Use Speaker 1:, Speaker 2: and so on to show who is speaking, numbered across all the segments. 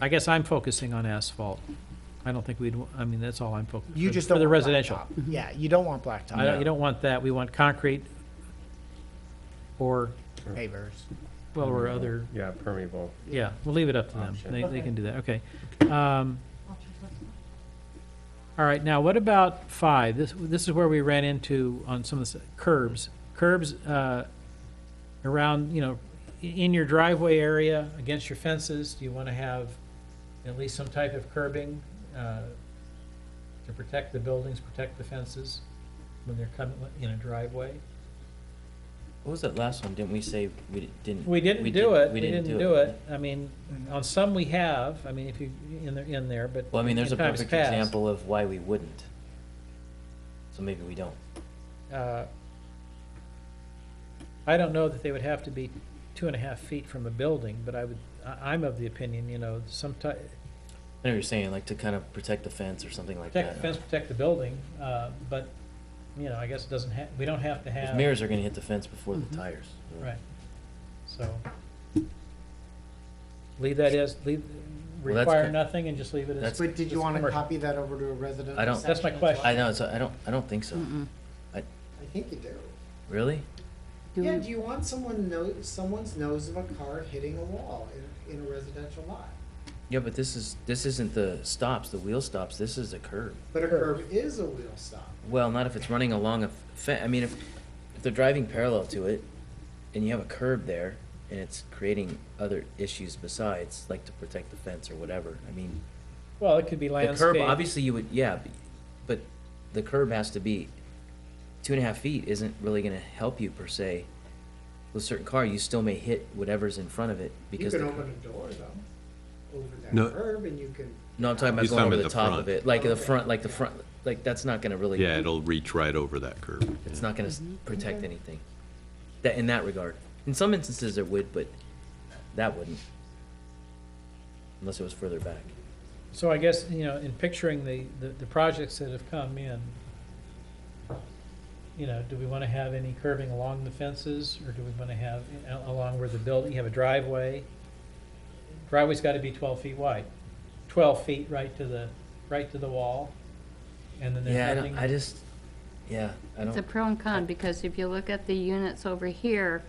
Speaker 1: I guess I'm focusing on asphalt. I don't think we'd, I mean, that's all I'm focusing.
Speaker 2: You just don't.
Speaker 1: For the
Speaker 2: want
Speaker 1: residential.
Speaker 2: blacktop.
Speaker 3: Mm-hmm.
Speaker 2: Yeah, you don't want
Speaker 1: I
Speaker 2: blacktop
Speaker 1: don't, you don't want that. We want concrete or,
Speaker 2: pavers.
Speaker 1: well, or other,
Speaker 4: Yeah, permeable.
Speaker 1: yeah, we'll leave it up to them.
Speaker 4: Option.
Speaker 1: They, they can do that, okay. Um, All right, now what about five? This, this is where we ran into on some of the curbs. Curbs, uh, around, you know, i- in your driveway area, against your fences, do you want to have at least some type of curbing, uh, to protect the buildings, protect the fences when they're coming in a driveway?
Speaker 5: What was that last one? Didn't we say we di- didn't?
Speaker 1: We didn't do it, we
Speaker 5: We
Speaker 1: didn't do it. I mean, on some we have, I mean, if you, in there, in there, but.
Speaker 5: Well, I mean, there's a
Speaker 1: in times
Speaker 5: perfect
Speaker 1: past,
Speaker 5: example of why we wouldn't. So maybe we don't.
Speaker 1: uh, I don't know that they would have to be two and a half feet from a building, but I would, I, I'm of the opinion, you know, sometime,
Speaker 5: I know what you're saying, like to kind of protect the fence or something like
Speaker 1: protect the fence,
Speaker 5: that.
Speaker 1: protect the building, uh, but, you know, I guess it doesn't ha, we don't have to
Speaker 5: Those
Speaker 1: have.
Speaker 5: mirrors are gonna hit the fence before the tires. so.
Speaker 1: Right, so. Leave that as, leave,
Speaker 5: Well, that's
Speaker 1: require
Speaker 5: ki-
Speaker 1: nothing and just leave it as,
Speaker 5: That's-
Speaker 2: But did
Speaker 1: it's
Speaker 2: you want to
Speaker 1: commercial.
Speaker 2: copy that over to a residential?
Speaker 5: I don't-
Speaker 1: That's my
Speaker 2: section as
Speaker 1: question.
Speaker 2: well?
Speaker 5: I know, so I don't, I don't think so.
Speaker 2: I think you do.
Speaker 5: Really?
Speaker 3: Do
Speaker 2: Yeah,
Speaker 3: we-
Speaker 2: do you want someone nose, someone's nose of a car hitting a wall in, in a residential lot?
Speaker 5: Yeah, but this is, this isn't the stops, the wheel stops. This is a curb.
Speaker 2: But a curb is a wheel stop.
Speaker 5: Well, not if it's running along a fence. I mean, if, if they're driving parallel to it and you have a curb there and it's creating other issues besides, like to protect the fence or whatever, I mean.
Speaker 1: well, it could be
Speaker 5: The curb,
Speaker 1: landscape.
Speaker 5: obviously you would, yeah, b- but the curb has to be, two and a half feet isn't really gonna help you per se. With a certain car, you still may hit whatever's in front of it
Speaker 2: You
Speaker 5: because.
Speaker 2: can
Speaker 5: the
Speaker 2: open
Speaker 5: cur-
Speaker 2: a door though, over that
Speaker 6: No.
Speaker 2: curb and you can.
Speaker 5: No, I'm talking about
Speaker 6: He's
Speaker 5: going
Speaker 6: talking
Speaker 5: over
Speaker 6: about
Speaker 5: the
Speaker 6: the
Speaker 5: top of
Speaker 6: front.
Speaker 5: it, like the
Speaker 2: Okay.
Speaker 5: front, like the front, like that's not gonna really.
Speaker 6: Yeah, it'll reach right over that curb.
Speaker 5: It's not gonna s-
Speaker 3: Mm-hmm.
Speaker 5: protect anything. That, in that regard. In some instances it would, but that wouldn't. Unless it was further back.
Speaker 1: So I guess, you know, in picturing the, the, the projects that have come in, you know, do we want to have any curving along the fences, or do we want to have a- along where the building, you have a driveway? Driveway's got to be twelve feet wide, twelve feet right to the, right to the wall, and then
Speaker 5: Yeah, I
Speaker 1: there's
Speaker 5: don't, I
Speaker 1: nothing.
Speaker 5: just, yeah, I
Speaker 3: It's a
Speaker 5: don't,
Speaker 3: pro and con, because if you look at the units over here,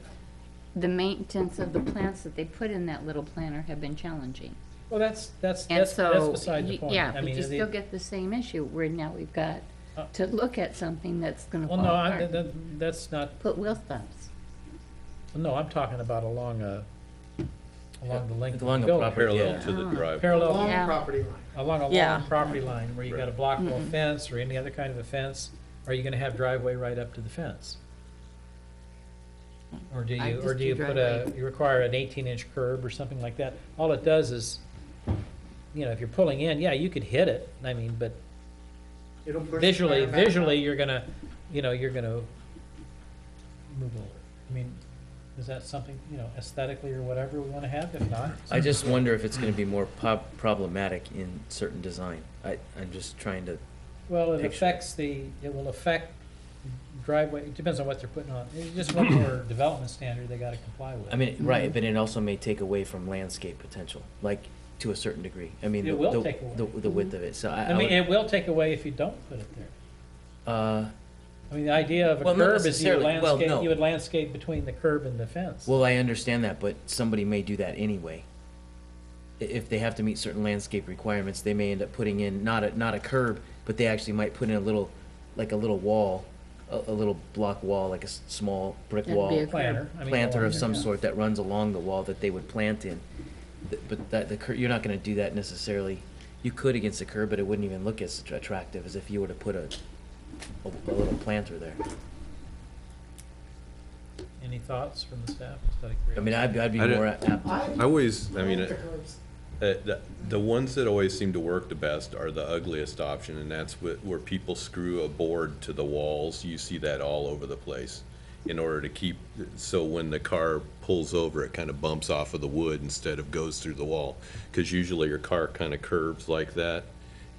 Speaker 3: the maintenance of the plants that they put in that little planter have been challenging.
Speaker 1: Well, that's, that's,
Speaker 3: And
Speaker 1: that's, that's
Speaker 3: so,
Speaker 1: beside the
Speaker 3: y-
Speaker 1: point.
Speaker 3: yeah,
Speaker 1: I
Speaker 3: but
Speaker 1: mean,
Speaker 3: you
Speaker 1: the-
Speaker 3: still get the same issue, where now we've got
Speaker 1: Uh,
Speaker 3: to look at something that's gonna
Speaker 1: Well,
Speaker 3: fall
Speaker 1: no, I, that-
Speaker 3: apart.
Speaker 1: that, that's not,
Speaker 3: Put wheel stops.
Speaker 1: no, I'm talking about along a, along the length of
Speaker 5: Along
Speaker 1: the
Speaker 5: a
Speaker 1: building.
Speaker 5: proper-
Speaker 6: Parallel
Speaker 5: Yeah.
Speaker 6: to the drive.
Speaker 1: Parallel
Speaker 2: Along the
Speaker 3: Yeah.
Speaker 2: property line.
Speaker 1: along a
Speaker 7: Yeah.
Speaker 1: long property line where you got a block wall fence or any other kind of a fence, are you gonna have driveway right up to the fence? Or do
Speaker 7: I'd
Speaker 1: you, or
Speaker 7: just
Speaker 1: do
Speaker 7: do
Speaker 1: you put a, you require an eighteen inch curb or something like that? All it does is, you know, if you're pulling in, yeah, you could hit it, I mean, but
Speaker 2: It'll push the
Speaker 1: visually,
Speaker 2: car back up.
Speaker 1: visually, you're gonna, you know, you're gonna move over. I mean, is that something, you know, aesthetically or whatever we wanna have? If not,
Speaker 5: I just wonder if it's gonna be more po- problematic in certain design. I, I'm just trying to,
Speaker 1: Well, it
Speaker 5: picture.
Speaker 1: affects the, it will affect driveway, it depends on what they're putting on. It's just one more development standard they gotta comply with.
Speaker 5: I mean,
Speaker 3: Mm-hmm.
Speaker 5: right, but it also may take away from landscape potential, like, to a certain degree. I mean,
Speaker 1: It
Speaker 5: the,
Speaker 1: will
Speaker 5: the-
Speaker 1: take away.
Speaker 5: the, the width
Speaker 3: Mm-hmm.
Speaker 5: of it, so I,
Speaker 1: I
Speaker 5: I
Speaker 1: mean,
Speaker 5: would,
Speaker 1: it will take away if you don't put it there.
Speaker 5: uh,
Speaker 1: I mean, the idea of a
Speaker 5: Well, not
Speaker 1: curb is you would
Speaker 5: necessarily. Well,
Speaker 1: landscape,
Speaker 5: no.
Speaker 1: you would landscape between the curb and the fence.
Speaker 5: Well, I understand that, but somebody may do that anyway. I- If they have to meet certain landscape requirements, they may end up putting in not a, not a curb, but they actually might put in a little, like a little wall, a, a little block wall, like a s- small brick
Speaker 3: That'd be
Speaker 5: wall.
Speaker 3: a
Speaker 1: Planter, I mean,
Speaker 5: Planter
Speaker 1: along
Speaker 5: of
Speaker 1: there,
Speaker 5: some
Speaker 1: yeah.
Speaker 5: sort that runs along the wall that they would plant in. Th- But that, the cur, you're not gonna do that necessarily. You could against the curb, but it wouldn't even look as attractive as if you were to put a, a, a little planter there.
Speaker 1: Any thoughts from the staff?
Speaker 5: I mean, I'd, I'd be
Speaker 6: I don't-
Speaker 5: more apt to,
Speaker 6: I always, I mean,
Speaker 2: like the
Speaker 6: uh,
Speaker 2: curbs.
Speaker 6: the, the ones that always seem to work the best are the ugliest option, and that's wh- where people screw a board to the walls. You see that all over the place in order to keep, so when the car pulls over, it kind of bumps off of the wood instead of goes through the wall. Because usually your car kind of curves like that,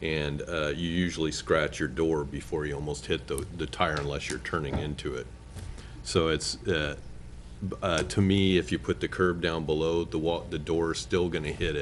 Speaker 6: and uh, you usually scratch your door before you almost hit the, the tire unless you're turning into it. So it's, uh, b- uh, to me, if you put the curb down below, the wall, the door is still gonna hit it.